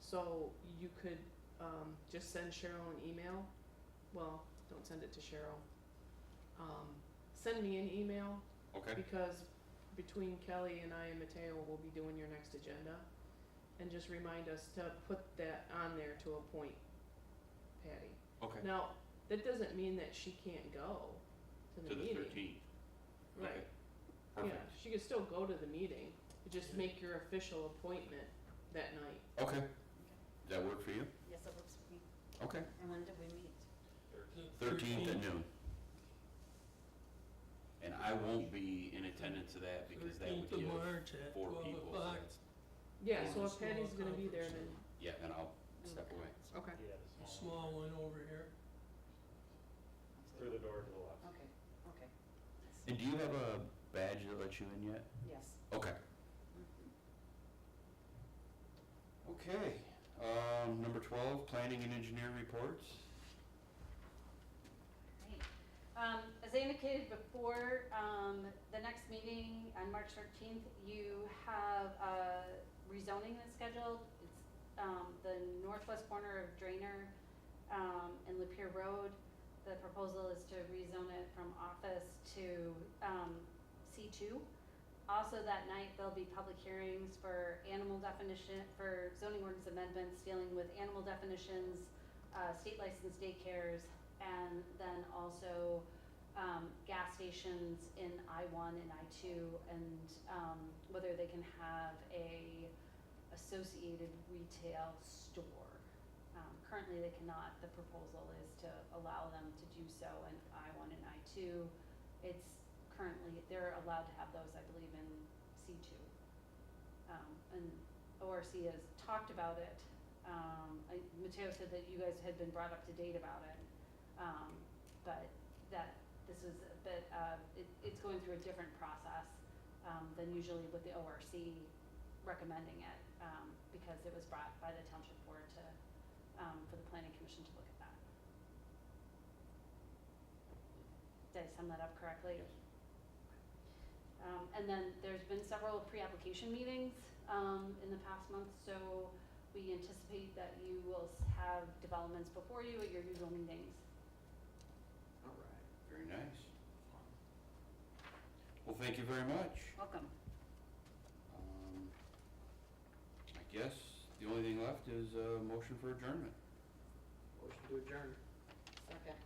So you could, um, just send Cheryl an email, well, don't send it to Cheryl. Um, send me an email, Okay, because between Kelly and I and Mateo will be doing your next agenda. And just remind us to put that on there to appoint Patty. okay, Now, that doesn't mean that she can't go to to the the meeting. thirteenth. Right. Yeah, Perfect, she could still go to the meeting, but just Yeah. make your official appointment that night. okay. Does that work for you? Yes, it works for me. Okay. And when did we meet? Thirteenth at noon. And I won't be in attendance to that because that would Thirteenth of give, March at four twelve people, so o'clock. that's- Yeah, so Yeah. if Patty's gonna be there, Small then, yeah, then I'll step away. okay. A small one over here. Through the door to the left. Okay, okay, And do you have a badge that lets you in yet? yes. Okay. Mhm. Okay, um, number twelve, planning and engineering reports. Great. Um, as I indicated before, um, the next meeting on March thirteenth, you have, uh, rezoning that's scheduled. It's, um, the northwest corner of Drainer, um, and Lapeer Road. The proposal is to rezone it from office to, um, C two. Also that night, there'll be public hearings for animal definition, for zoning ordinance amendments dealing with animal definitions, uh, state licensed daycares, and then also um, gas stations in I one and I two, and um, whether they can have a associated retail store. Um, currently, they cannot. The proposal is to allow them to do so in I one and I two. It's currently they're allowed to have those, I believe, in C two. Um, and ORC has talked about it. Um, I, Mateo said that you guys had been brought up to date about it. Um, but that, this is, that, uh, it, it's going through a different process, um, than usually with the ORC recommending it, um, because it was brought by the township board to, um, for the planning commission to look at that. Did I sum that up correctly? Um, and then there's been several pre-application meetings, um, in the past month, so we anticipate that you will s- have developments before you at your usual meetings. All right. Very nice. Well, thank you very much. Welcome. Um, I guess the only thing left is a motion for adjournment. Motion to adjourn. Second.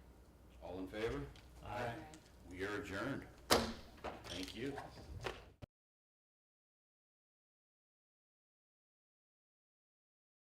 All in favor? We are adjourned. Thank you.